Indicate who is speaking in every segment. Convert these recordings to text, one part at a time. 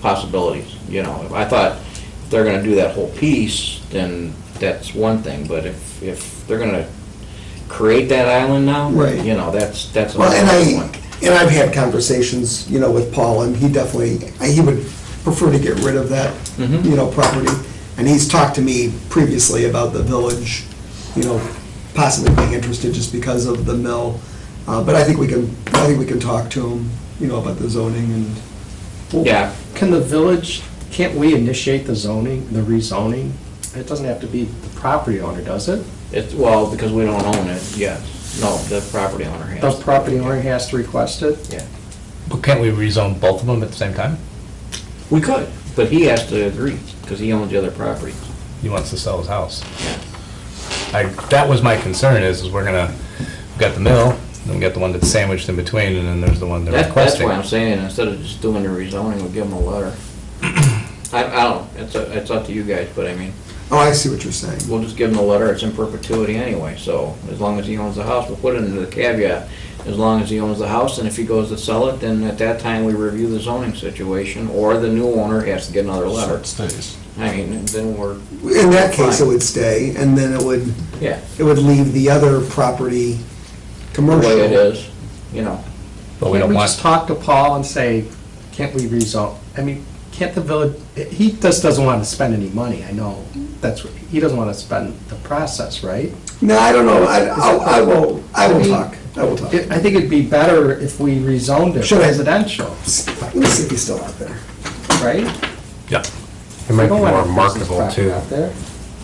Speaker 1: possibilities, you know. I thought if they're gonna do that whole piece, then that's one thing, but if, if they're gonna create that island now,
Speaker 2: Right.
Speaker 1: you know, that's, that's
Speaker 2: Well, and
Speaker 1: another one.
Speaker 2: I, and I've had conversations, you know, with Paul, and he definitely, he would prefer to get rid of that,
Speaker 1: Mhm.
Speaker 2: you know, property. And he's talked to me previously about the village, you know, possibly being interested just because of the mill. Uh, but I think we can, I think we can talk to him, you know, about the zoning and,
Speaker 3: Well,
Speaker 1: Yeah.
Speaker 3: Can the village, can't we initiate the zoning, the rezoning? It doesn't have to be the property owner, does it?
Speaker 1: It's, well, because we don't own it, yes. No, the property owner
Speaker 3: The
Speaker 1: has.
Speaker 3: property owner has to request it?
Speaker 1: Yeah.
Speaker 4: But can't we rezone both of them at the same time?
Speaker 1: We could, but he has to agree, because he owns the other property.
Speaker 4: He wants to sell his house. I, that was my concern is, is we're gonna, we've got the mill, then we got the one that's sandwiched in between, and then there's the one they're
Speaker 1: That, that's
Speaker 4: requesting.
Speaker 1: why I'm saying, instead of just doing the rezoning, we give them a letter. I, I don't, it's, a- it's up to you guys, but I mean,
Speaker 2: oh, I see what you're saying.
Speaker 1: we'll just give them a letter, it's in perpetuity anyway, so as long as he owns the house, we'll put it into the caveat, as long as he owns the house, and if he goes to sell it, then at that time, we review the zoning situation, or the new owner has to get another letter.
Speaker 5: stays.
Speaker 1: I mean, then we're,
Speaker 2: In that case, it would stay, and then it would,
Speaker 1: yeah,
Speaker 2: it would leave the other property
Speaker 1: the
Speaker 2: commercial.
Speaker 1: way it is, you know.
Speaker 4: But we
Speaker 3: Can't
Speaker 4: don't
Speaker 3: just talk
Speaker 4: want,
Speaker 3: to Paul and say, can't we rezone? I mean, can't the village, he just doesn't want to spend any money, I know. That's, what he doesn't want to spend the process, right?
Speaker 2: No, I don't know, I, I'll- I will, I will talk, I will talk.
Speaker 3: It- I think it'd be better if we rezoned it
Speaker 2: Should I-
Speaker 3: residential,
Speaker 2: Let me see if he's still out there.
Speaker 3: right?
Speaker 4: yeah,
Speaker 5: It might be
Speaker 3: Don't want
Speaker 5: more
Speaker 3: our business
Speaker 5: marketable
Speaker 3: property
Speaker 5: too,
Speaker 3: out there.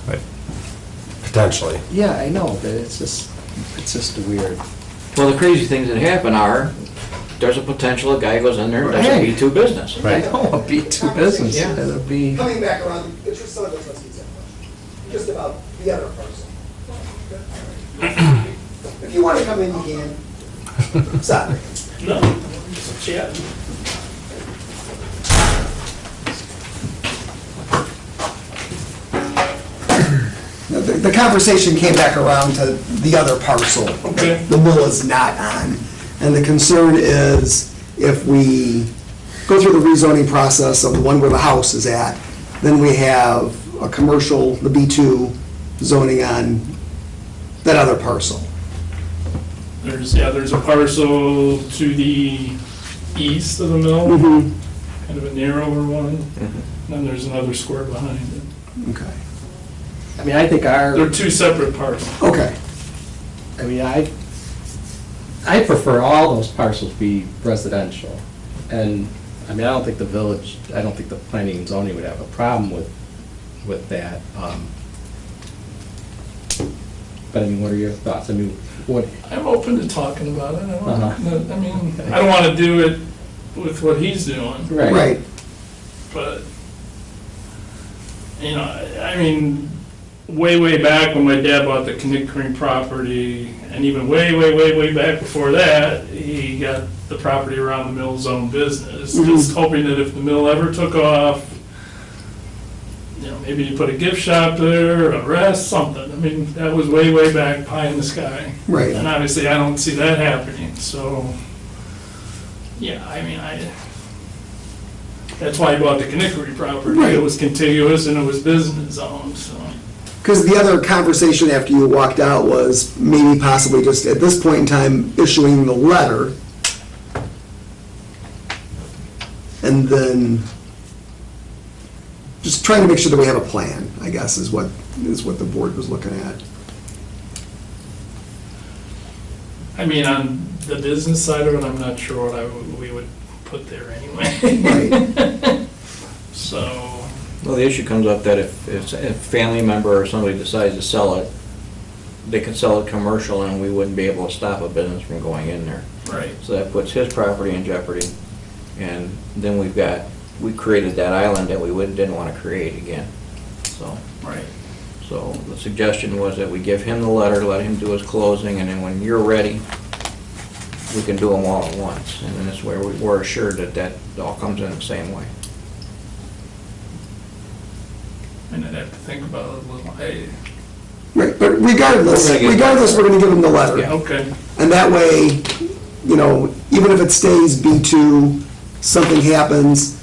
Speaker 4: right.
Speaker 5: potentially.
Speaker 3: Yeah, I know, but it's just, it's just weird.
Speaker 1: Well, the crazy things that happen are, there's a potential, a guy goes in there, and does a
Speaker 3: Right.
Speaker 1: B2 business.
Speaker 3: I don't want to Oh, be two business,
Speaker 1: Yeah.
Speaker 3: it'll be,
Speaker 6: coming back around, the tr- some of the trustees have questions, just about the other person. If you want to come in, you can. Sorry.
Speaker 2: No, The the conversation came back around to the other parcel. Okay. The mill is not on. And the concern is if we go through the rezoning process of the one where the house is at, then we have a commercial, the B2 zoning on that other parcel.
Speaker 7: There's, yeah, there's a parcel to the east of the mill, kind of a narrower one, and then there's another square behind it.
Speaker 2: Okay.
Speaker 3: I mean, I think our.
Speaker 7: They're two separate parcels.
Speaker 2: Okay.
Speaker 3: I mean, I, I prefer all those parcels be residential. And, I mean, I don't think the village, I don't think the planning and zoning would have a problem with, with that. um, But I mean, what are your thoughts? I mean, what,
Speaker 7: I'm open to talking about it, I don't,
Speaker 3: Uh-huh.
Speaker 7: I mean, I don't want to do it with what he's doing,
Speaker 3: right,
Speaker 2: Right.
Speaker 7: but, you know, I I mean, way, way back when my dad bought the Connect Creek property, and even way, way, way, way back before that, he got the property around the mill's own business, just hoping that if the mill ever took off, you know, maybe you put a gift shop there, a rest, something. I mean, that was way, way back, pie in the sky.
Speaker 2: Right.
Speaker 7: And obviously, I don't see that happening, so, yeah, I mean, I, that's why I bought the Knickery property.
Speaker 2: Right.
Speaker 7: It was contiguous and it was business owned, so.
Speaker 2: Because the other conversation after you walked out was maybe possibly just at this point in time issuing the letter. And then just trying to make sure that we have a plan, I guess, is what, is what the board was looking at.
Speaker 7: I mean, on the business side of it, I'm not sure what I, would- we would put there anyway.
Speaker 2: Right,
Speaker 7: So,
Speaker 1: Well, the issue comes up that if, if a family member or somebody decides to sell it, they could sell it commercial and we wouldn't be able to stop a business from going in there.
Speaker 7: right,
Speaker 1: So that puts his property in jeopardy. And then we've got, we created that island that we wouldn't, didn't want to create again. So,
Speaker 7: right.
Speaker 1: so the suggestion was that we give him the letter, let him do his closing, and then when you're ready, we can do them all at once. And then this way, we- we're assured that that all comes in the same way.
Speaker 7: And I'd have to think about it a little. I-
Speaker 2: right, but regardless,
Speaker 1: We're gonna get-
Speaker 2: regardless, we're gonna give them the letter.
Speaker 1: Yeah.
Speaker 7: Okay,
Speaker 2: And that way, you know, even if it stays B2, something happens,